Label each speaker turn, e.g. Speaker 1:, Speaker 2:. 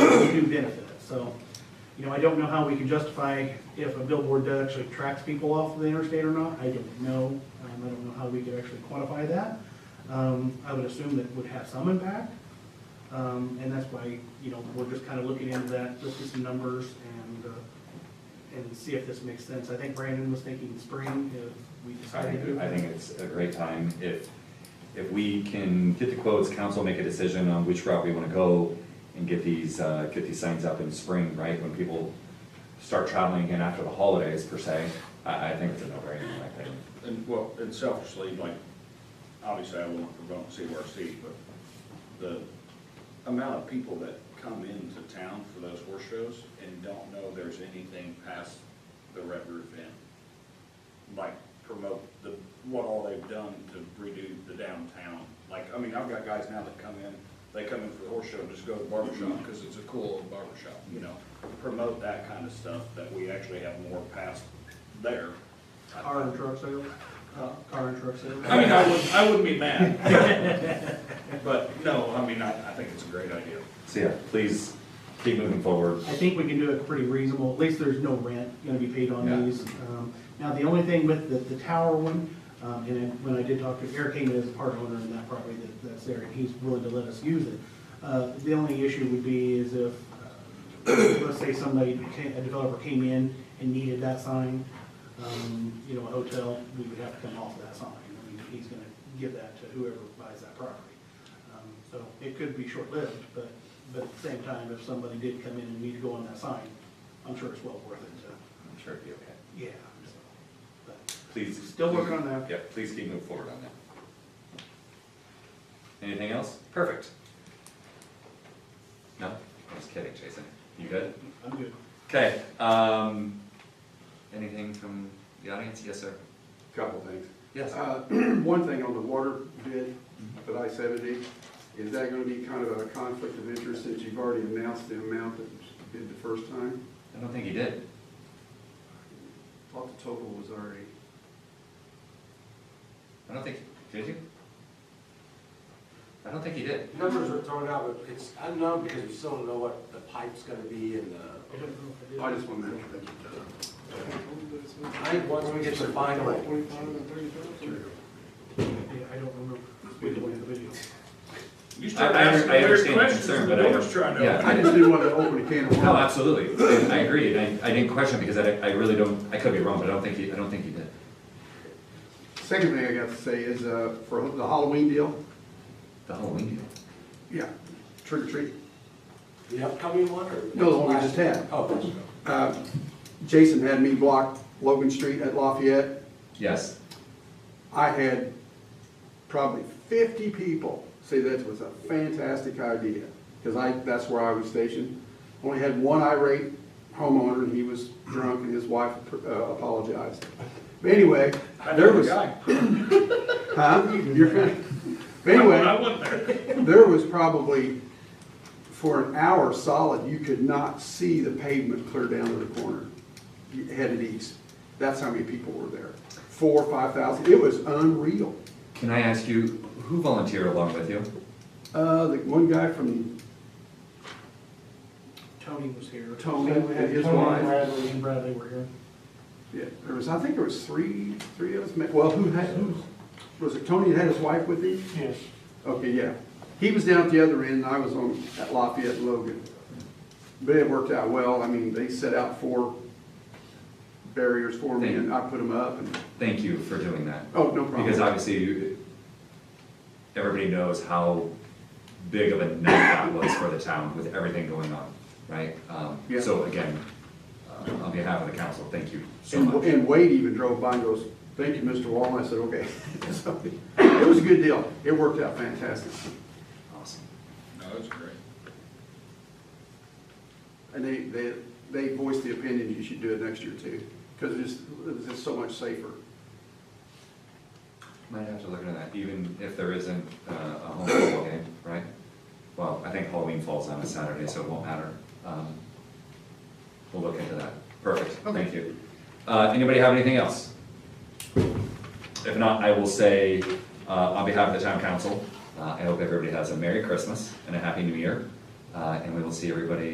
Speaker 1: do benefit us. So, you know, I don't know how we can justify if a billboard does actually tracks people off the interstate or not. I don't know. Um, I don't know how we could actually quantify that. Um, I would assume that would have some impact. Um, and that's why, you know, we're just kind of looking into that, let's get some numbers and, uh, and see if this makes sense. I think Brandon was thinking spring if we
Speaker 2: I
Speaker 1: decided to.
Speaker 2: think, I think it's a great time if, if we can get the quotes, council make a decision on which route we want to go and get these, uh, get these signs up in spring, right, when people start traveling again after the holidays per se, I, I think it's a no-brainer, like, I think.
Speaker 3: And, well, and selfishly, like, obviously I won't promote CRC, but the amount of people that come into town for those horse shows and don't know there's anything past the Red Roof Inn, like, promote the, what all they've done to redo the downtown. Like, I mean, I've got guys now that come in, they come in for the horse show, and just go to the barber shop because it's a cool old barber shop. you know? Promote that kind of stuff, that we actually have more past there.
Speaker 1: Car and truck sales, uh,
Speaker 3: Huh?
Speaker 1: car and truck sales.
Speaker 3: I mean, I wouldn't, I wouldn't be mad. But no, I mean, I, I think it's a great idea.
Speaker 2: So yeah, please keep moving forward.
Speaker 1: I think we can do it pretty reasonable, at least there's no rent gonna be paid on
Speaker 2: Yeah.
Speaker 1: these. Um, Now, the only thing with the, the tower one, um, and then when I did talk to Eric Kane, is a part owner in that property that, that's there, and he's willing to let us use it. Uh, the only issue would be is if, uh, let's say somebody, ca- a developer came in and needed that sign, um, you know, a hotel, we would have to come off that sign. I mean, he's gonna give that to whoever buys that property. Um, So it could be short-lived, but, but at the same time, if somebody did come in and need to go on that sign, I'm sure it's well worth it to,
Speaker 2: I'm sure it'd be okay.
Speaker 1: yeah. so, but
Speaker 2: Please.
Speaker 1: Still working on that.
Speaker 2: Yeah, please keep moving forward on that. Anything else? Perfect. No, I'm just kidding, Jason. You good?
Speaker 1: I'm good.
Speaker 2: Okay, um, anything from the audience? Yes, sir.
Speaker 4: Couple things.
Speaker 2: Yes.
Speaker 4: Uh, One thing on the water bid that I said it is, is that gonna be kind of a conflict of interest since you've already announced the amount that was bid the first time?
Speaker 2: I don't think he did.
Speaker 4: Thought the total was already.
Speaker 2: I don't think, did you? I don't think he did.
Speaker 5: Numbers are thrown out, but it's unknown because we still don't know what the pipe's gonna be and the,
Speaker 4: I just wanted to.
Speaker 5: I think once we get the final,
Speaker 1: Yeah, I don't remember. We didn't win the video.
Speaker 3: You
Speaker 2: I-
Speaker 3: start
Speaker 2: I
Speaker 3: asking
Speaker 2: I
Speaker 3: weird
Speaker 2: understand the
Speaker 3: questions,
Speaker 2: concern,
Speaker 3: the
Speaker 2: but I.
Speaker 3: board's trying to.
Speaker 2: Yeah,
Speaker 4: I just didn't want to open a can of
Speaker 2: no,
Speaker 4: worms.
Speaker 2: absolutely. I agree. I, I didn't question because I, I really don't, I could be wrong, but I don't think he, I don't think he did.
Speaker 4: Second thing I got to say is, uh, for the Halloween deal,
Speaker 2: The Halloween deal.
Speaker 4: yeah, trick or treat.
Speaker 5: the upcoming one or?
Speaker 4: No, the one we just had.
Speaker 5: Oh,
Speaker 4: Uh, Jason had me block Logan Street at Lafayette.
Speaker 2: Yes.
Speaker 4: I had probably fifty people say that was a fantastic idea, because I, that's where I was stationed. Only had one irate homeowner, and he was drunk, and his wife uh, apologized. But anyway,
Speaker 3: I know
Speaker 4: there
Speaker 3: the
Speaker 4: was,
Speaker 3: guy.
Speaker 4: huh? You're-
Speaker 3: I
Speaker 4: But anyway,
Speaker 3: went there.
Speaker 4: there was probably, for an hour solid, you could not see the pavement clear down to the corner, headed east. That's how many people were there, four, five thousand, it was unreal.
Speaker 2: Can I ask you, who volunteered along with you?
Speaker 4: Uh, the one guy from
Speaker 1: Tony was here.
Speaker 4: Tony
Speaker 1: We had
Speaker 4: and his
Speaker 1: Tony
Speaker 4: wife.
Speaker 1: Bradley and Bradley were here.
Speaker 4: Yeah, there was, I think there was three, three of us, ma- well, who had, who, was it Tony that had his wife with him?
Speaker 1: Yes.
Speaker 4: Okay, yeah. He was down at the other end, and I was on, at Lafayette and Logan. But it worked out well, I mean, they set out four barriers for me, and I put them up, and,
Speaker 2: Thank you for doing that.
Speaker 4: oh, no problem.
Speaker 2: Because obviously, you- everybody knows how big of a night that was for the town with everything going on, right? Um,
Speaker 4: Yeah.
Speaker 2: So again, uh, on behalf of the council, thank you so
Speaker 4: And,
Speaker 2: much.
Speaker 4: and Wade even drove by and goes, thank you, Mr. Wall, and I said, okay. So, It was a good deal, it worked out fantastic.
Speaker 2: Awesome.
Speaker 3: No, it's great.
Speaker 4: And they, they, they voiced the opinion you should do it next year too, because it's, it's just so much safer.
Speaker 2: Might have to look into that, even if there isn't uh, a home football game, right? Well, I think Halloween falls on a Saturday, so it won't matter. Um, We'll look into that. Perfect, thank you. Uh, Anybody have anything else? If not, I will say, uh, on behalf of the town council, uh, I hope everybody has a Merry Christmas and a Happy New Year. uh, And we will see everybody